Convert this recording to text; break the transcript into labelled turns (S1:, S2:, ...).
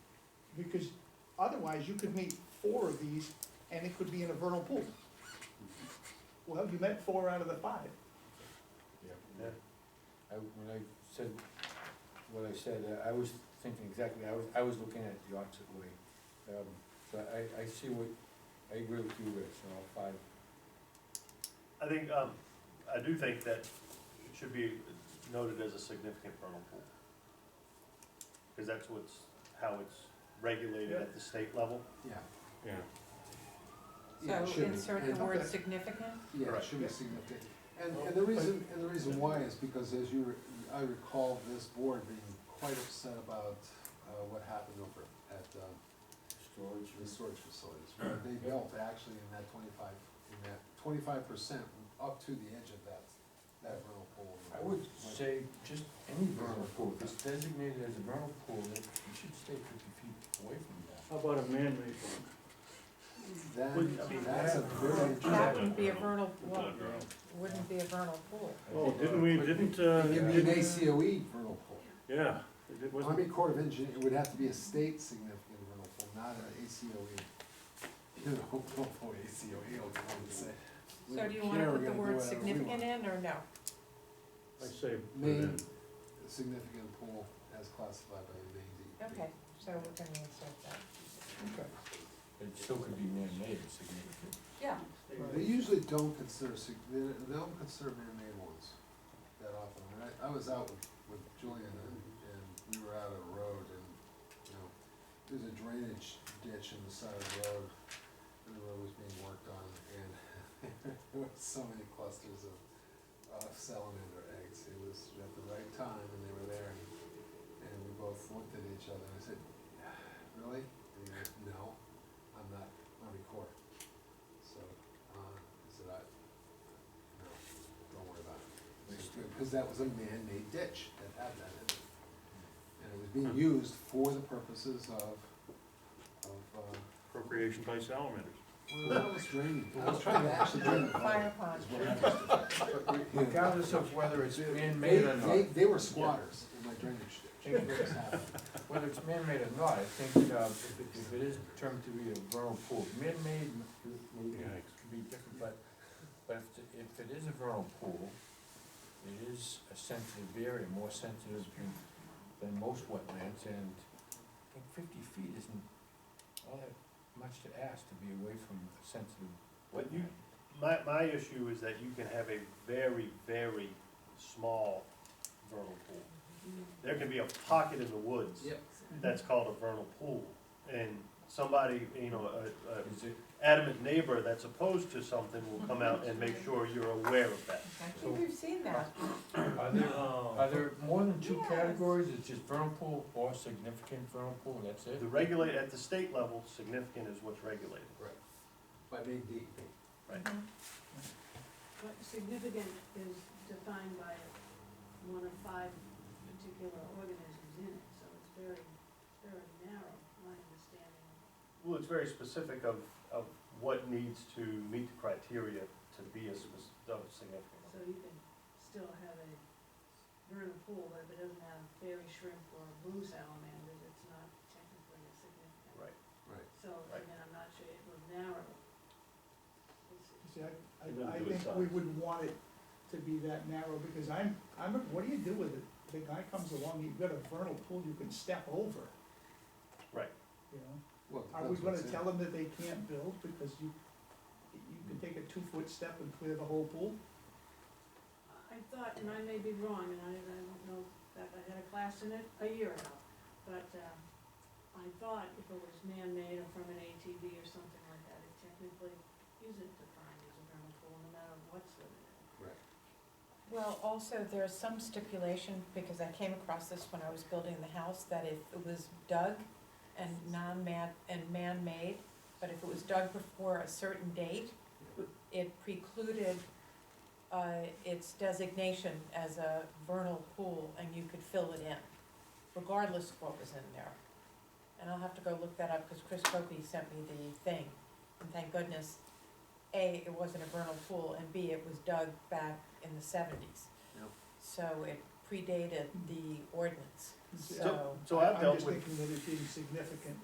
S1: because otherwise you could meet four of these and it could be in a vernal pool. Well, you met four out of the five.
S2: Yeah. I, when I said, what I said, uh, I was thinking exactly, I was, I was looking at it the opposite way. Um, so I, I see what, I agree with you, Rich, on all five.
S3: I think, um, I do think that it should be noted as a significant vernal pool. Cause that's what's, how it's regulated at the state level.
S4: Yeah.
S5: Yeah.
S4: Yeah, it
S6: So
S4: should be.
S6: insert the
S4: And-
S6: word
S1: Okay.
S6: significant?
S4: Yeah, it
S3: Correct.
S4: should be significant. And, and the reason, and the reason why is because as you, re- I recall this board being quite upset about, uh, what happened over at, uh,
S2: Storage.
S4: the storage facilities. where They built actually in that twenty-five, in that twenty-five percent up to the edge of that, that vernal pool.
S2: I would say just any vernal pool, if it's designated as a vernal pool, that you should stay fifty feet away from that.
S5: How about a man-made one? Would- I mean,
S4: That, that's a very.
S6: That
S5: Yeah.
S6: wouldn't be a vernal,
S5: It's
S6: well,
S5: not vernal.
S6: wouldn't be a vernal pool.
S2: I
S5: Oh,
S2: think, uh,
S5: didn't we,
S2: but-
S5: didn't, uh,
S4: It'd be an ACOE vernal E pool.
S5: yeah, it wasn't,
S4: Army Corps of Engineers, it would have to be a state significant vernal pool, not an ACOE. You know, oh, ACOE, I'll come and say. we
S6: So
S4: don't
S6: do you
S4: care,
S6: wanna
S4: we're
S6: put the
S4: gonna do
S6: word
S4: whatever we
S6: significant
S4: want.
S6: in or no?
S5: I say, put it in.
S4: Main, significant pool as classified by the E Maine DEP.
S6: Okay, so we're gonna insert that.
S1: Okay.
S2: It still could be man-made, significant.
S6: Yeah,
S4: They usually don't consider, sig- they they don't consider man-made ones that often. When I, I was out with, with Julian and, and we were out on the road and, you know, there's a drainage ditch in the side of the road and the road was being worked on and there was so many clusters of, uh salamander eggs. It was at the right time and they were there and, and we both looked at each other and I said, really? And he goes, no, I'm not, I'm recording. So, uh, I said, I, no, don't worry about it. Because that was a man-made ditch that had that in it.
S1: Hmm.
S4: And it was being used for the purposes of, of, uh,
S5: appropriation by salamanders.
S4: well, that was draining. I was trying to actually drain the
S6: fire
S4: water.
S6: pond.
S4: is what I was doing. Yeah.
S2: Regardless of whether it's
S4: They,
S2: man-made or not.
S4: they, they were squatters in my drainage ditch. That's what was happening.
S2: Whether it's man-made or not, I think, uh, if it, if it is termed to be a vernal pool, man-made m- m- m-
S5: Yikes.
S2: could be different, but, but if, it- if it is a vernal pool, it is a sensitive area, more sensitive than, than most wetlands, and I think fifty feet isn't all that much to ask to be away from a sensitive
S3: But you-
S2: wetland.
S3: My, my issue is that you can have a very, very small vernal pool. There can be a pocket in the woods.
S4: Yep.
S3: That's called a vernal pool, and somebody, you know, a, a
S2: Is it,
S3: adamant neighbor that's opposed to something will come out and make sure you're aware of that.
S6: I think we've seen that.
S2: are there, are there more than two
S6: Yes.
S2: categories, it's just vernal pool or significant vernal pool, and that's it?
S3: The regulate, at the state level, significant is what's regulated.
S4: By Maine DEP.
S6: Mm-hmm.
S7: But significant is defined by one of five particular organisms in it, so it's very, very narrow, my understanding.
S3: Well, it's very specific of, of what needs to meet the criteria to be a spec- of
S7: So
S3: significant.
S7: you can still have a vernal pool, but if it doesn't have fairy shrimp or blue salamanders, it's not technically a significant.
S3: Right.
S4: Right.
S7: So,
S3: Right.
S7: again, I'm not sure, it was narrow. It's-
S1: You See,
S5: It
S1: I, I, I
S5: wouldn't do it
S1: think we would want it to be that narrow, because I'm, I'm, what do you do with it? The guy comes along, you've got a vernal pool you can step over.
S3: Right.
S1: You know,
S4: Well, it
S1: are we gonna
S4: depends what's in it.
S1: tell them that they can't build because you, you can take a two-foot step and clear the whole pool?
S7: I thought, and I may be wrong, and I, I don't know, that I had a class in it a year ago, but, um, I thought if it was man-made or from an ATV or something like that, it technically isn't defined as a vernal pool, no matter what's in it.
S6: Well, also, there is some stipulation, because I came across this when I was building the house, that if it was dug and non-man, and man-made, but if it was dug before a certain date, it precluded, uh, its designation as a vernal pool, and you could fill it in, regardless of what was in there. And I'll have to go look that up, because Chris Copey sent me the thing, and thank goodness A, it wasn't a vernal pool, and B, it was dug back in the seventies.
S4: Yep.
S6: So it predated the ordinance,
S1: So-
S6: so,
S3: So I've
S1: I'm
S3: dealt
S1: Uh, just
S3: with
S1: thinking that it being significant